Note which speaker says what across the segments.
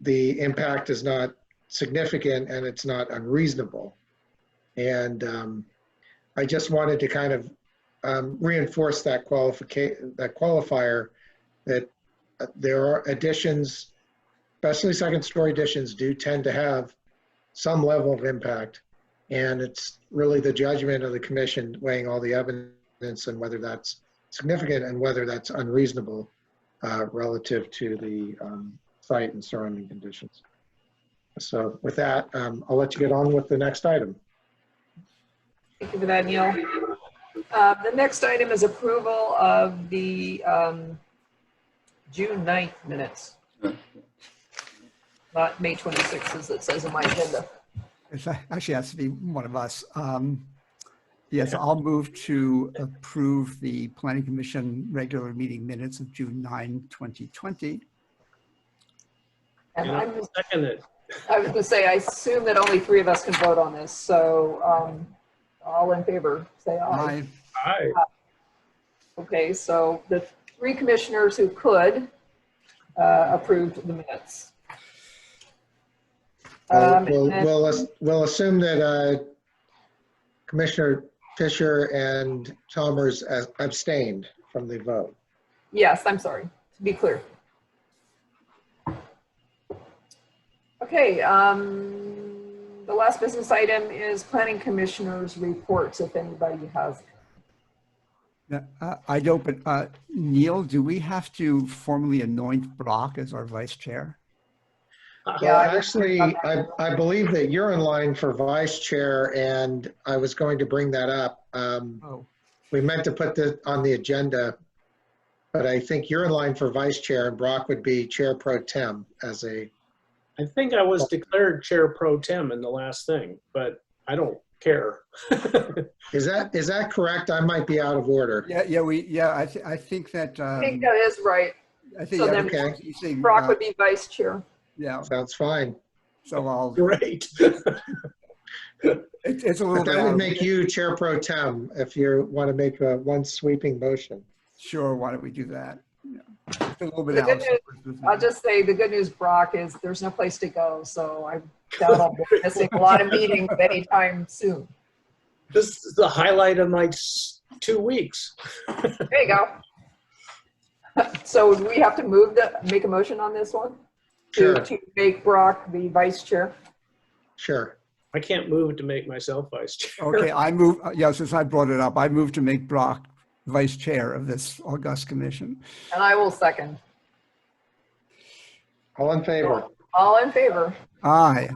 Speaker 1: the impact is not significant and it's not unreasonable. And um, I just wanted to kind of um, reinforce that qualifica, that qualifier, that uh, there are additions, especially second-story additions do tend to have some level of impact. And it's really the judgment of the commission weighing all the evidence and whether that's significant and whether that's unreasonable uh, relative to the um, site and surrounding conditions. So with that, um, I'll let you get on with the next item.
Speaker 2: Thank you for that, Neil. Uh, The next item is approval of the um, June 9th minutes. Not May 26th, as it says in my agenda.
Speaker 3: It's a- Actually, it has to be one of us. Um, Yes, I'll move to approve the Planning Commission regular meeting minutes of June 9, 2020.
Speaker 2: And
Speaker 4: And
Speaker 2: I'm,
Speaker 4: I'll second it.
Speaker 2: I was gonna say, I assume that only three of us can vote on this, so um, all in favor, say aye.
Speaker 3: I,
Speaker 4: Aye.
Speaker 2: Okay, so the three commissioners who could uh, approved the minutes.
Speaker 1: Uh,
Speaker 2: Um,
Speaker 1: We'll,
Speaker 2: and-
Speaker 1: we'll ass- we'll assume that uh, Commissioner Fisher and Chalmers as- abstained from the vote.
Speaker 2: Yes, I'm sorry, to be clear. Okay, um, the last business item is planning commissioners' reports, if anybody has.
Speaker 3: uh, I'd open, uh, Neil, do we have to formally anoint Brock as our vice chair?
Speaker 1: Well,
Speaker 2: Yeah, I-
Speaker 1: actually, I, I believe that you're in line for vice chair and I was going to bring that up. Um,
Speaker 3: Oh.
Speaker 1: We meant to put this on the agenda, but I think you're in line for vice chair and Brock would be chair pro tem as a,
Speaker 4: I think I was declared chair pro tem in the last thing, but I don't care.
Speaker 1: is that, is that correct? I might be out of order.
Speaker 3: Yeah, yeah, we, yeah, I, thi- I think that,
Speaker 2: I
Speaker 3: um,
Speaker 2: think that is right.
Speaker 3: I think,
Speaker 2: so
Speaker 3: yeah,
Speaker 2: then-
Speaker 3: because you think,
Speaker 2: Brock
Speaker 3: uh,
Speaker 2: would be vice chair.
Speaker 3: yeah,
Speaker 1: Sounds fine.
Speaker 3: so I'll,
Speaker 4: Great.
Speaker 3: it's it's a little
Speaker 1: But
Speaker 3: bit.
Speaker 1: that
Speaker 3: out
Speaker 1: would
Speaker 3: of-
Speaker 1: make you chair pro tem if you want to make a one sweeping motion.
Speaker 3: Sure, why don't we do that? Yeah. It's A little bit.
Speaker 2: The good
Speaker 3: out of-
Speaker 2: I'll just say, the good news, Brock, is there's no place to go, so I doubt I'll be missing a lot of meetings anytime soon.
Speaker 4: This is the highlight of my s- two weeks.
Speaker 2: There you go. So do we have to move the, make a motion on this one?
Speaker 1: Sure.
Speaker 2: To to make Brock the vice chair?
Speaker 1: Sure.
Speaker 4: I can't move to make myself vice chair.
Speaker 3: Okay, I move, uh, yeah, since I brought it up, I move to make Brock vice chair of this august commission.
Speaker 2: And I will second.
Speaker 1: All in favor?
Speaker 2: All in favor?
Speaker 3: Aye,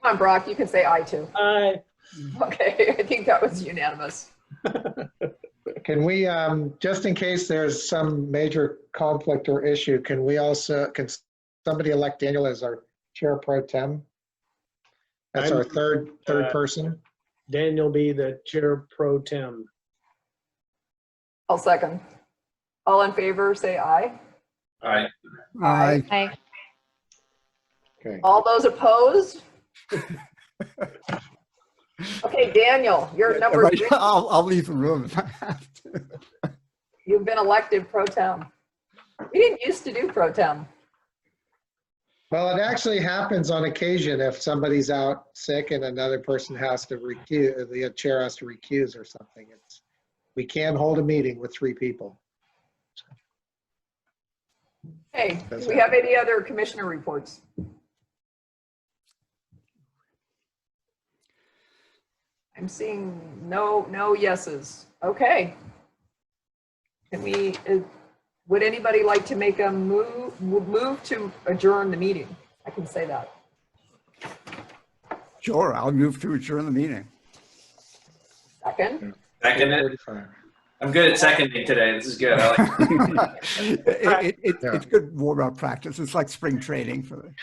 Speaker 2: Come on, Brock, you can say aye too.
Speaker 4: Aye.
Speaker 2: Okay, I think that was unanimous.
Speaker 1: Can we, um, just in case there's some major conflict or issue, can we also, can somebody elect Daniel as our chair pro tem? That's our
Speaker 4: I'm-
Speaker 1: third, third
Speaker 4: uh,
Speaker 1: person.
Speaker 4: Daniel be the chair pro tem.
Speaker 2: I'll second. All in favor, say aye.
Speaker 5: Aye.
Speaker 3: aye,
Speaker 6: Aye.
Speaker 1: Okay.
Speaker 2: All those opposed? Okay, Daniel, you're number
Speaker 3: Right,
Speaker 2: three.
Speaker 3: I'll, I'll leave the room if I have to.
Speaker 2: You've been elected pro tem. We didn't used to do pro tem.
Speaker 1: Well, it actually happens on occasion if somebody's out sick and another person has to recuse, the chair has to recuse or something. It's, we can hold a meeting with three people.
Speaker 2: Hey, do we have any other commissioner reports? I'm seeing no, no yeses. Okay. Can we, uh, would anybody like to make a move, move to adjourn the meeting? I can say that.
Speaker 3: Sure, I'll move to adjourn the meeting.
Speaker 2: Second?
Speaker 5: Second it.
Speaker 1: 45.
Speaker 5: I'm good at seconding today. This is good. I like
Speaker 3: It, it, it- it's good warm-up practice. It's like spring training for the.